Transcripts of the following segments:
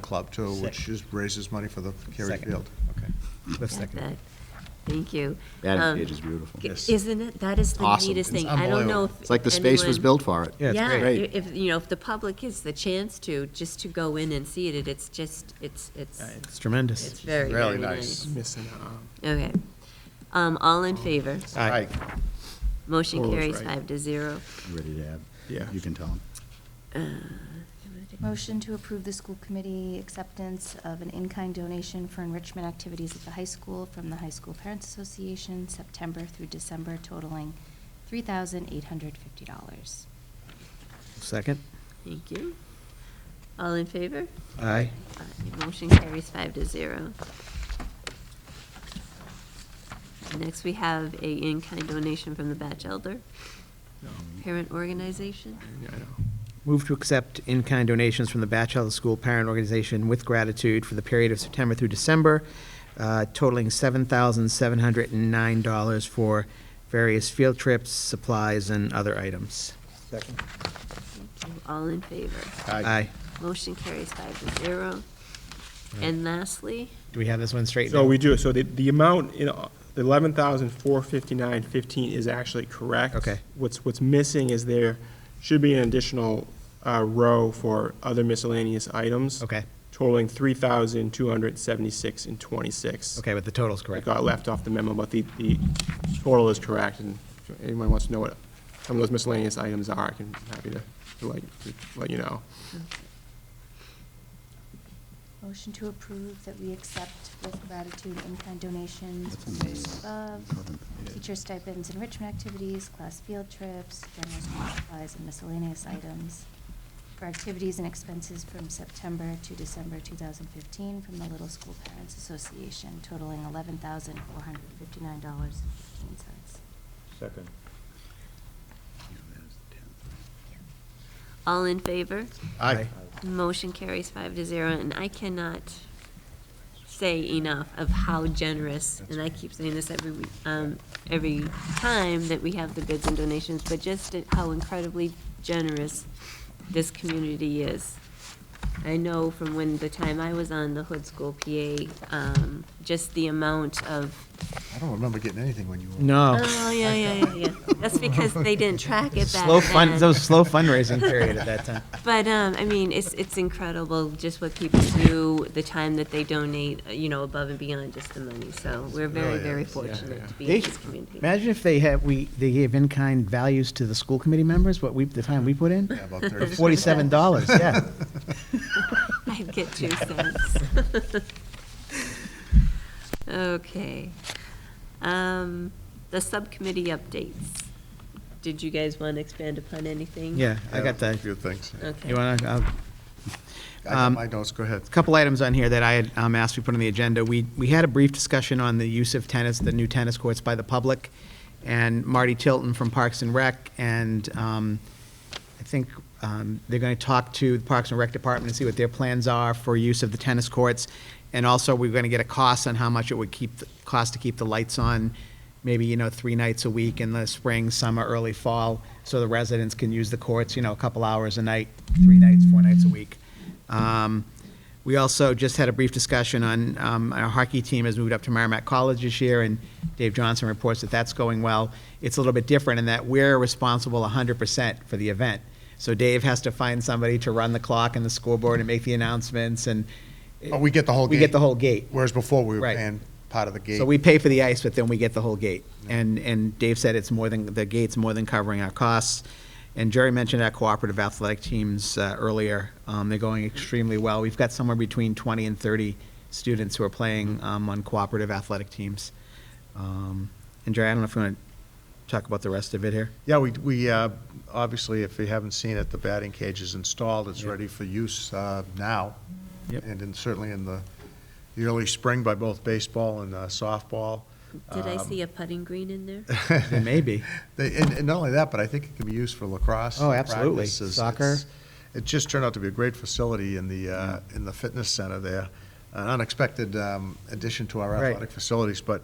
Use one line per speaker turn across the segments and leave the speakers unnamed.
Club too, which
Sec-
is, raises money for the Carey
Second.
Field.
Okay. Let's
Got
second.
that. Thank you.
That
Um,
page is beautiful.
g-
Yes.
Isn't it? That is the
Awesome.
neatest
It's
thing. I don't know
unbelievable.
if.
It's like the space was
anyone-
built for it.
Yeah, it's
Yeah,
great.
i- if, you know, if the public gets the chance to, just to go in and see it, it's just, it's, it's,
Uh, It's
it's
tremendous.
very,
really
very
nice.
nice. Okay. Um, all in favor?
Aye.
Motion
Paul was
carries
right.
five to zero. Uh,
Ready to add.
Yeah.
You can tell them.
Motion to approve the school committee acceptance of an in-kind donation for enrichment activities at the high school from the High School Parents Association, September through December totaling $3,850.
Second?
Thank you. All in favor?
Aye.
Aye. Motion carries five to zero. Next, we have a in-kind donation from the Batch Elder Parent Organization.
Move to accept in-kind donations from the Batchelor School Parent Organization with gratitude for the period of September through December, uh, totaling $7,709 for various field trips, supplies, and other items.
Thank you. All in favor?
Aye.
Motion carries five to zero. And lastly,
Do we have this one straight?
So
now?
we do, so the, the amount, in the eleven thousand four fifty-nine fifteen is actually correct.
Okay.
What's, what's missing is there should be an additional, uh, row for other miscellaneous items.
Okay.
Totaling three thousand two hundred seventy-six and twenty-six.
Okay, but the total's
That
correct.
got left off the memo, but the, the total is correct, and if anyone wants to know what some of those miscellaneous items are, I can, happy to, to let, to let you know.
Motion to approve that we accept with gratitude in-kind donations
That's
from those
amazing.
above, teacher stipends, enrichment activities, class field trips, general school supplies, and miscellaneous items for activities and expenses from September to December 2015 from the Little School Parents Association totaling $11,459.15.
Second.
all in favor?
Aye.
Motion carries five to zero, and I cannot say enough of how generous, and I keep saying this every week, um, every time that we have the goods and donations, but just at how incredibly generous this community is. I know from when the time I was on the Hood School PA, um, just the amount of
I don't remember getting anything when you were.
No.
Oh, yeah, yeah, yeah, yeah. That's because they didn't track it back
Slow fund,
then.
that was slow fundraising period at that time.
But, um, I mean, it's, it's incredible just what people do, the time that they donate, uh, you know, above and beyond just the money. So we're
Really
very, very
is, yeah,
fortunate to be
They
in
should-
this community.
Imagine if they had, we, they gave in-kind values to the school committee members, what we, the time we put in?
Yeah, about 36.
Forty-seven dollars, yeah.
I'd get two cents. Okay. Um, the subcommittee updates. Did you guys want to expand upon anything?
Yeah, I
Yeah,
got
A
that.
few things.
You
Okay.
want to,
I got
Um,
my notes, go ahead.
a couple items on here that I had um, asked we put on the agenda. We, we had a brief discussion on the use of tennis, the new tennis courts by the public, and Marty Tilton from Parks and Rec, and um, I think um, they're going to talk to the Parks and Rec Department and see what their plans are for use of the tennis courts. And also, we're going to get a cost on how much it would keep, cost to keep the lights on, maybe, you know, three nights a week in the spring, summer, early fall, so the residents can use the courts, you know, a couple hours a night, three nights, four nights a week. Um, we also just had a brief discussion on, um, our hockey team has moved up to Merrimack College this year, and Dave Johnson reports that that's going well. It's a little bit different in that we're responsible 100% for the event. So Dave has to find somebody to run the clock and the scoreboard and make the announcements, and
Oh, we get the whole gate.
we get the whole gate.
Whereas before, we were
Right.
paying part of the gate.
So we pay for the ice, but then we get the whole gate. And, and Dave said it's more than, the gate's more than covering our costs. And Jerry mentioned our cooperative athletic teams uh, earlier. Um, They're going extremely well. We've got somewhere between 20 and 30 students who are playing um, on cooperative athletic teams. Um, And Jerry, I don't know if you want to talk about the rest of it here?
Yeah, we, we, uh, obviously, if you haven't seen it, the batting cage is installed, it's
Yeah.
ready for use uh, now.
Yep.
And then certainly in the, the early spring by both baseball and uh, softball.
Did
um,
I see a putting green in there?
There may be.
They, and, and not only that, but I think it can be used for lacrosse.
Oh, absolutely.
practices.
Soccer. Mm.
It's- It just turned out to be a great facility in the, uh, in the fitness center there. An unexpected, um, addition to our
Right.
athletic facilities, but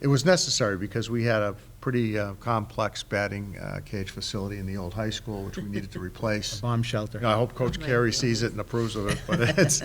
it was necessary because we had a pretty, uh, complex batting, uh, cage facility in the old high school, which we needed to replace.
Bomb shelter.
You know, I hope Coach
Right.
Carey sees it and approves of it, but it's,